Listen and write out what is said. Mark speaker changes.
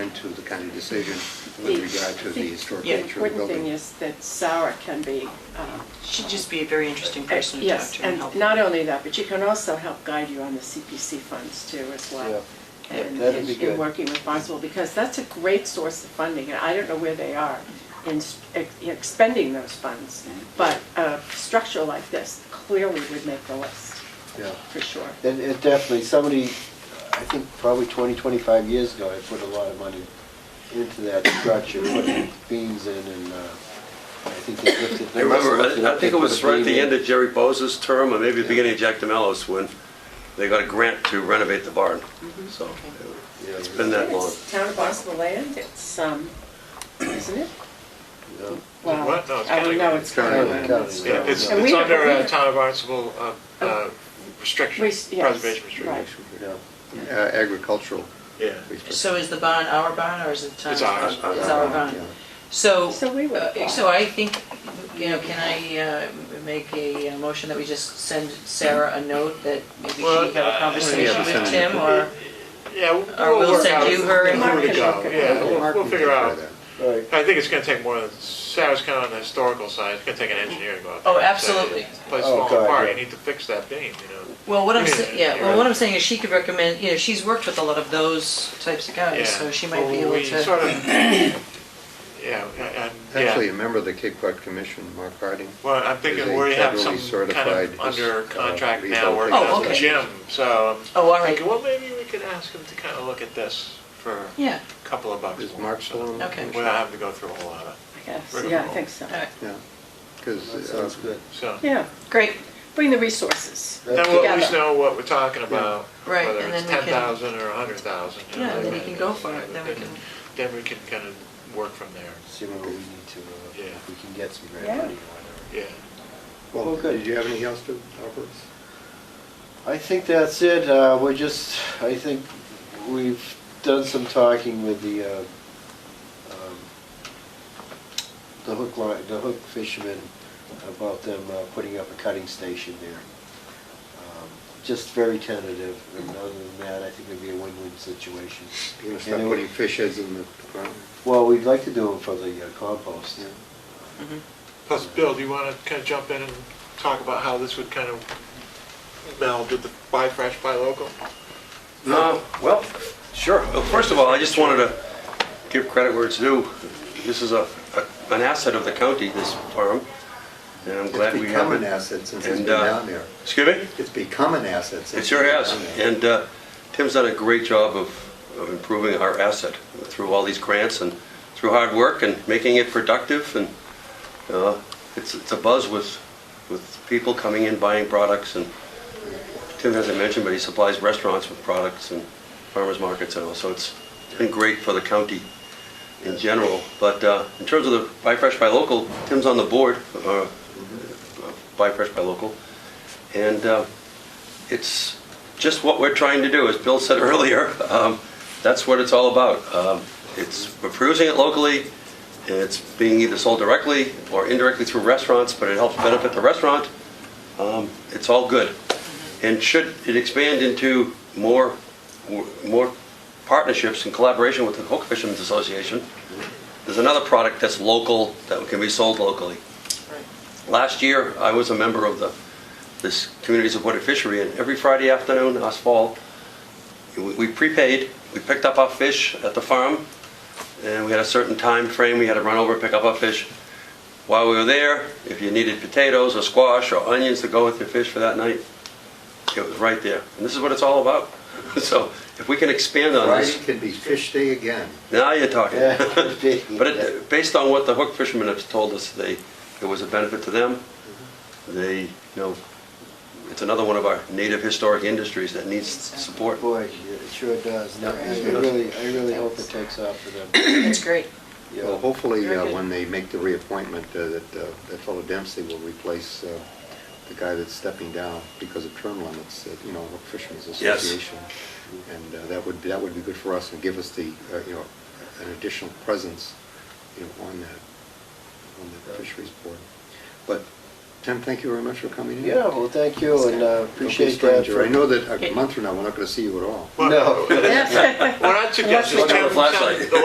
Speaker 1: to the county decision with
Speaker 2: The-
Speaker 1: regard to the
Speaker 2: the-
Speaker 1: historic
Speaker 2: The
Speaker 1: nature of the
Speaker 2: important thing
Speaker 1: building.
Speaker 2: is that Sarah can be, um,
Speaker 3: She'd just be a very interesting person to talk
Speaker 2: Eh, yes,
Speaker 3: to and
Speaker 2: and
Speaker 3: help.
Speaker 2: not only that, but she can also help guide you on the CPC funds too as well.
Speaker 4: Yeah.
Speaker 2: And-
Speaker 4: Yeah, that'd
Speaker 2: and-
Speaker 4: be
Speaker 2: And
Speaker 4: good.
Speaker 2: working with Barnstable, because that's a great source of funding, and I don't know where they are in s- ex- expending those funds. But a structure like this clearly would make the list,
Speaker 4: Yeah.
Speaker 2: for sure.
Speaker 4: And it definitely, somebody, I think probably 20, 25 years ago, I put a lot of money into that structure, put beams in and, uh, I think they lifted.
Speaker 5: I remember, I- I think it was right at the end of Jerry Bose's term, or maybe the beginning of Jack DeMello's, when they got a grant to renovate the barn. So it's been that long.
Speaker 2: It's Town of Barnstable land, it's, um, isn't it? Wow.
Speaker 6: What? No, it's
Speaker 2: I don't
Speaker 6: county.
Speaker 2: know, it's
Speaker 1: County.
Speaker 2: county land.
Speaker 4: County.
Speaker 6: Yeah, it's,
Speaker 2: And
Speaker 6: it's
Speaker 2: we-
Speaker 6: under
Speaker 2: we-
Speaker 6: uh town of Barnstable uh, uh, restriction,
Speaker 2: We- Oh. yes,
Speaker 6: preservation
Speaker 2: right.
Speaker 6: restriction.
Speaker 4: Yeah.
Speaker 1: Uh, Agricultural.
Speaker 6: Yeah.
Speaker 3: So is the bond our bond or is it the town's?
Speaker 6: It's ours.
Speaker 3: bond? It's
Speaker 1: Uh,
Speaker 3: our bond. So,
Speaker 2: So we would apply.
Speaker 3: uh, so I think, you know, can I uh, make a uh, motion that we just send Sarah a note that maybe she
Speaker 6: Well,
Speaker 3: have a
Speaker 6: uh,
Speaker 3: conversation
Speaker 1: yeah,
Speaker 3: with
Speaker 1: send
Speaker 3: Tim
Speaker 1: it.
Speaker 3: or?
Speaker 6: Yeah, we'll
Speaker 3: Or we'll
Speaker 6: work
Speaker 3: send
Speaker 6: out
Speaker 3: you her
Speaker 6: where to
Speaker 2: information.
Speaker 6: go. Yeah, we'll,
Speaker 1: Mark
Speaker 6: we'll
Speaker 1: can
Speaker 6: figure
Speaker 1: take
Speaker 6: out.
Speaker 1: care of
Speaker 4: All right.
Speaker 6: I think it's gonna take more than, Sarah's kind of on the historical side, it's gonna take an engineer to go out there.
Speaker 3: Oh,
Speaker 6: and say,
Speaker 3: absolutely.
Speaker 6: Place
Speaker 4: Oh,
Speaker 6: falling
Speaker 4: God,
Speaker 6: apart,
Speaker 4: yeah.
Speaker 6: you need to fix that beam, you know?
Speaker 3: Well, what I'm,
Speaker 6: Yeah,
Speaker 3: sa- yeah, well, what I'm saying is she could recommend, you know, she's worked with a lot of those types of
Speaker 6: Yeah.
Speaker 3: guys, Oh, so she might be able
Speaker 6: Well, we sort
Speaker 3: to.
Speaker 6: of- Yeah, and,
Speaker 1: Actually, a
Speaker 6: yeah,
Speaker 1: member of the Cape Cod Commission, Mark Harding.
Speaker 6: well, I'm
Speaker 1: is
Speaker 6: thinking
Speaker 1: a
Speaker 6: we have some
Speaker 1: federally
Speaker 6: kind
Speaker 1: certified,
Speaker 6: of under
Speaker 1: uh,
Speaker 6: contract now working
Speaker 3: rehabilitation
Speaker 6: on the gym, so. I'm
Speaker 3: Oh, all right.
Speaker 6: thinking, Well, maybe we could ask him to kind of look at this for a
Speaker 3: Yeah,
Speaker 6: couple of bucks.
Speaker 1: Is
Speaker 6: more,
Speaker 1: Mark
Speaker 6: so
Speaker 1: still on the
Speaker 3: Okay.
Speaker 1: commission?
Speaker 6: We don't have to go through a whole lot of,
Speaker 2: I guess,
Speaker 6: Rigmarole.
Speaker 2: yeah, I think so.
Speaker 3: all right,
Speaker 1: Yeah, uh,
Speaker 4: That
Speaker 1: because.
Speaker 4: sounds good.
Speaker 6: so.
Speaker 2: Yeah,
Speaker 3: great,
Speaker 2: bring the resources.
Speaker 6: Then
Speaker 4: That's
Speaker 6: we'll
Speaker 4: good.
Speaker 6: at least know what we're talking about,
Speaker 3: Right,
Speaker 6: whether
Speaker 3: and then
Speaker 6: it's
Speaker 3: we
Speaker 6: ten
Speaker 3: can-
Speaker 6: thousand or a hundred thousand.
Speaker 3: Yeah, then we can go for it, then we can-
Speaker 6: Then we can kind of work from there,
Speaker 4: See what we need to, uh,
Speaker 6: Yeah.
Speaker 4: if we can get some grant
Speaker 2: Yeah.
Speaker 4: money or whatever.
Speaker 6: yeah.
Speaker 1: Well,
Speaker 4: Well, good.
Speaker 1: did you have anything else to offer us?
Speaker 4: I think that's it. Uh, We're just, I think we've done some talking with the, uh, um, the hook line, the hook fishermen about them uh, putting up a cutting station there. Um, Just very tentative, and other than that, I think it'd be a win-win situation.
Speaker 1: You're going to
Speaker 4: And
Speaker 1: start
Speaker 4: it
Speaker 1: putting
Speaker 4: would-
Speaker 1: fish heads in the ground?
Speaker 4: Well, we'd like to do them for the uh, compost.
Speaker 1: Yeah.
Speaker 3: Mm-hmm.
Speaker 6: Plus, Bill, do you want to kind of jump in and talk about how this would kind of meld with the buy fresh, buy local?
Speaker 5: Uh, Well, sure. Well, First of all, I just wanted to give credit where it's due. This is a, a- an asset of the county, this farm, and I'm glad
Speaker 1: It's
Speaker 5: we have
Speaker 1: become an
Speaker 5: it.
Speaker 1: asset since it's
Speaker 5: And,
Speaker 1: been
Speaker 5: uh,
Speaker 1: down there.
Speaker 5: Excuse me?
Speaker 1: It's become an asset since
Speaker 5: It
Speaker 1: it's
Speaker 5: sure
Speaker 1: been
Speaker 5: has.
Speaker 1: down there.
Speaker 5: And uh, Tim's done a great job of of improving our asset through all these grants and through hard work and making it productive. And uh, it's it's a buzz with, with people coming in, buying products. And Tim hasn't mentioned, but he supplies restaurants with products and farmers markets and all. So it's been great for the county in general. But uh, in terms of the Buy Fresh, Buy Local, Tim's on the board, uh, Buy Fresh, Buy Local. And uh, it's just what we're trying to do, as Bill said earlier. Um, That's what it's all about. Um, It's, we're producing it locally, and it's being either sold directly or indirectly through restaurants, but it helps benefit the restaurant. Um, It's all good. And should it expand into more, more partnerships and collaboration with the Hook Fishermen's Association, there's another product that's local, that can be sold locally. Last year, I was a member of the, this Community Supported Fishery, and every Friday afternoon, last fall, we we prepaid, we picked up our fish at the farm, and we had a certain time frame, we had to run over and pick up our fish. While we were there, if you needed potatoes or squash or onions to go with your fish for that night, it was right there. And this is what it's all about. So if we can expand on
Speaker 1: Friday
Speaker 5: this,
Speaker 1: can be fish day again.
Speaker 5: now you're talking.
Speaker 4: Yeah, could be.
Speaker 5: But it, based on what the hook fishermen have told us, they, it was a benefit to them. They, you know, it's another one of our native historic industries that needs support.
Speaker 4: Boy, it sure does. No, I
Speaker 5: Yeah.
Speaker 4: really, I really hope it takes off for them.
Speaker 3: that's great.
Speaker 4: Yeah.
Speaker 1: Well, hopefully,
Speaker 3: Very
Speaker 1: uh,
Speaker 3: good.
Speaker 1: when they make the reappointment, uh, that uh, that fellow Dempsey will replace uh, the guy that's stepping down because of term limits, uh, you know, Hook Fishermen's
Speaker 5: Yes.
Speaker 1: Association. And uh, that would, that would be good for us and give us the, uh, you know, an additional presence, you know, on that, on that fisheries board. But, Tim, thank you very much for coming in.
Speaker 4: Yeah, well, thank you, and uh,
Speaker 1: Don't be a
Speaker 4: appreciate that.
Speaker 1: stranger.
Speaker 4: for-
Speaker 1: I know that a month from now, we're not going to see you at all.
Speaker 4: No.
Speaker 6: What I'd suggest is
Speaker 5: Unless we got
Speaker 6: Tim,
Speaker 5: a flashlight.
Speaker 6: Tim- the